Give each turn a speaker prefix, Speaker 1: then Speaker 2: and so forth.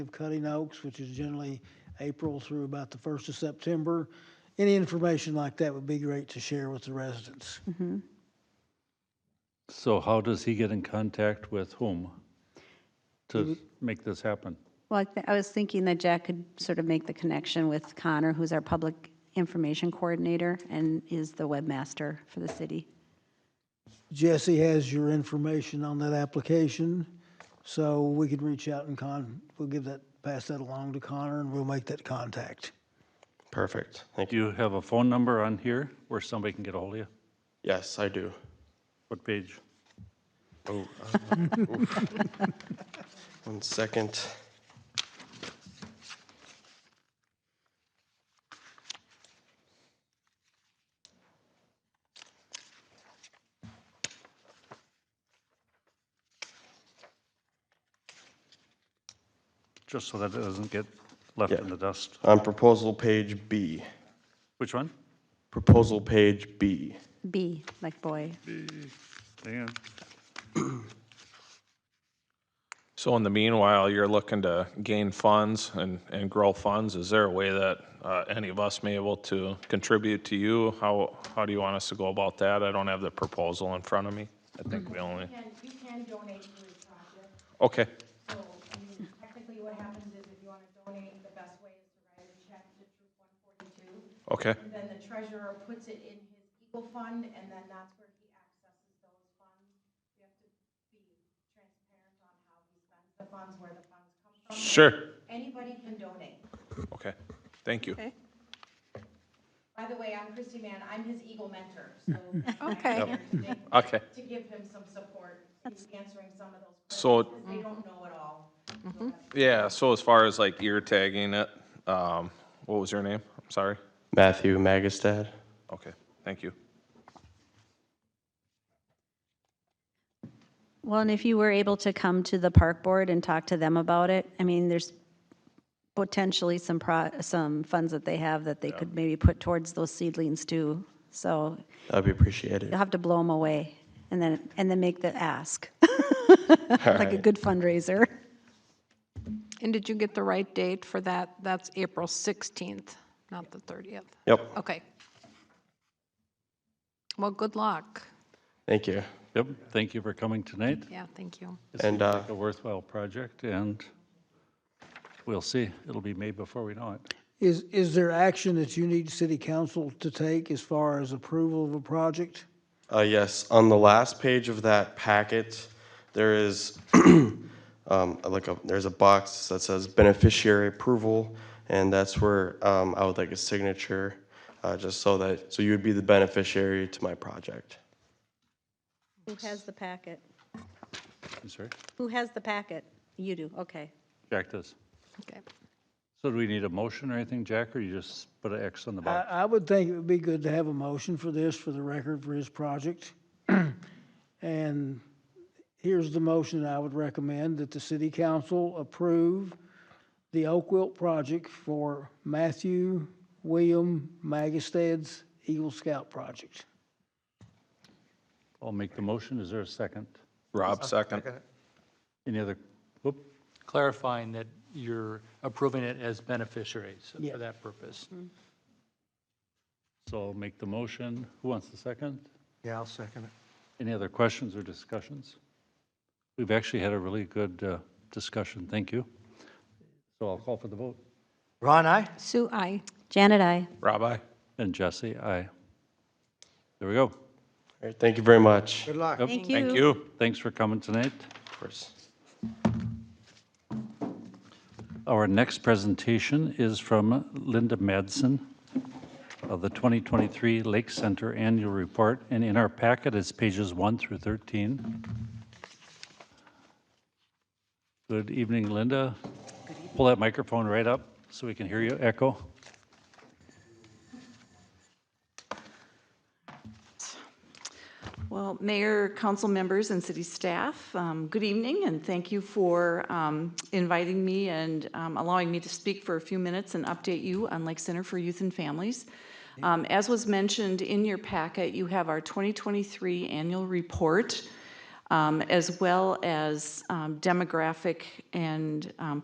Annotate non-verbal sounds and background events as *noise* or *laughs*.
Speaker 1: of cutting oaks, which is generally April through about the first of September. Any information like that would be great to share with the residents.
Speaker 2: So how does he get in contact with whom to make this happen?
Speaker 3: Well, I thi- I was thinking that Jack could sort of make the connection with Connor, who's our public information coordinator and is the webmaster for the city.
Speaker 1: Jesse has your information on that application, so we could reach out and con, we'll give that, pass that along to Connor and we'll make that contact.
Speaker 4: Perfect. Thank
Speaker 2: Do
Speaker 4: you.
Speaker 2: you have a phone number on here where somebody can get a hold of you?
Speaker 4: Yes, I do.
Speaker 2: What page?
Speaker 4: Oh, uh, oof. one second.
Speaker 2: Just so that it doesn't get left in the dust.
Speaker 4: On proposal page B.
Speaker 2: Which one?
Speaker 4: Proposal page B.
Speaker 3: B, like boy.
Speaker 2: Dan?
Speaker 5: So in the meanwhile, you're looking to gain funds and, and grow funds. Is there a way that uh, any of us may able to contribute to you? How, how do you want us to go about that? I don't have the proposal in front of me. I think we only,
Speaker 6: And you can donate to his project,
Speaker 5: okay,
Speaker 6: so, I mean, technically what happens is if you want to donate, the best way is to write a check to Troop 142,
Speaker 5: okay,
Speaker 6: and then the treasurer puts it in his Eagle Fund, and then that's where he accesses those funds. You have to be transparent on how he spends the funds, where the funds come from.
Speaker 5: sure,
Speaker 6: Anybody can donate.
Speaker 5: okay, thank you.
Speaker 6: By the way, I'm Christy Mann, I'm his Eagle mentor,
Speaker 5: *laughs*
Speaker 6: so.
Speaker 3: Okay.
Speaker 6: I'm here today
Speaker 5: Okay,
Speaker 6: To give him some support, he's answering some of those
Speaker 5: So-
Speaker 6: questions, because they don't know it all. So that's-
Speaker 5: yeah, so as far as like ear tagging it, um, what was your name? I'm sorry.
Speaker 4: Matthew Magistad.
Speaker 5: Okay, thank you.
Speaker 3: Well, and if you were able to come to the park board and talk to them about it, I mean, there's potentially some pro, some funds that they have that they could maybe put towards those seedlings too. So
Speaker 4: That'd be appreciated.
Speaker 3: you'll have to blow them away and then, and then make the ask, *laughs* like a
Speaker 4: Alright.
Speaker 3: good fundraiser.
Speaker 7: And did you get the right date for that? That's April 16th, not the 30th.
Speaker 4: Yep,
Speaker 7: Okay. Well, good luck.
Speaker 4: thank you.
Speaker 2: Yep, thank you for coming tonight.
Speaker 7: Yeah, thank you.
Speaker 4: And uh,
Speaker 2: A worthwhile project, and we'll see. It'll be made before we know it.
Speaker 1: Is, is there action that you need city council to take as far as approval of a project?
Speaker 4: Uh, yes, on the last page of that packet, there is *clears throat* um, like a, there's a box that says beneficiary approval, and that's where um, I would like a signature, uh, just so that so you would be the beneficiary to my project.
Speaker 3: Who has the packet?
Speaker 2: I'm sorry?
Speaker 3: Who has the packet? You do, okay.
Speaker 2: Jack does.
Speaker 7: Okay.
Speaker 2: So do we need a motion or anything, Jack, or you just put an X on the
Speaker 1: I,
Speaker 2: box?
Speaker 1: I would think it would be good to have a motion for this, for the record, for his project. *clears throat* And here's the motion I would recommend, that the city council approve the Oak Wilt project for Matthew William Magistad's Eagle Scout project.
Speaker 2: I'll make the motion. Is there a second?
Speaker 5: Rob, second.
Speaker 2: Any other, whoop,
Speaker 8: clarifying that you're approving it as beneficiaries
Speaker 1: Yeah.
Speaker 8: for that purpose.
Speaker 2: so I'll make the motion. Who wants the second?
Speaker 9: Yeah, I'll second it.
Speaker 2: Any other questions or discussions? We've actually had a really good uh, discussion, thank you. So I'll call for the vote.
Speaker 9: Ron, I.
Speaker 7: Sue, I.
Speaker 3: Janet, I.
Speaker 5: Rob, aye.
Speaker 2: And Jesse, aye. There we go.
Speaker 4: All right, thank you very much.
Speaker 9: Good luck.
Speaker 3: Thank you.
Speaker 5: Thank you.
Speaker 2: Thanks for coming tonight.
Speaker 4: Of course.
Speaker 2: Our next presentation is from Linda Madsen of the 2023 Lake Center Annual Report, and in our packet is pages 1 through 13. Good evening, Linda. Pull that microphone right up so we can hear you echo.
Speaker 10: Well, Mayor, council members, and city staff, um, good evening, and thank you for um, inviting me and um, allowing me to speak for a few minutes and update you on Lake Center for Youth and Families. Um, As was mentioned in your packet, you have our 2023 annual report, um, as well as um, demographic and um,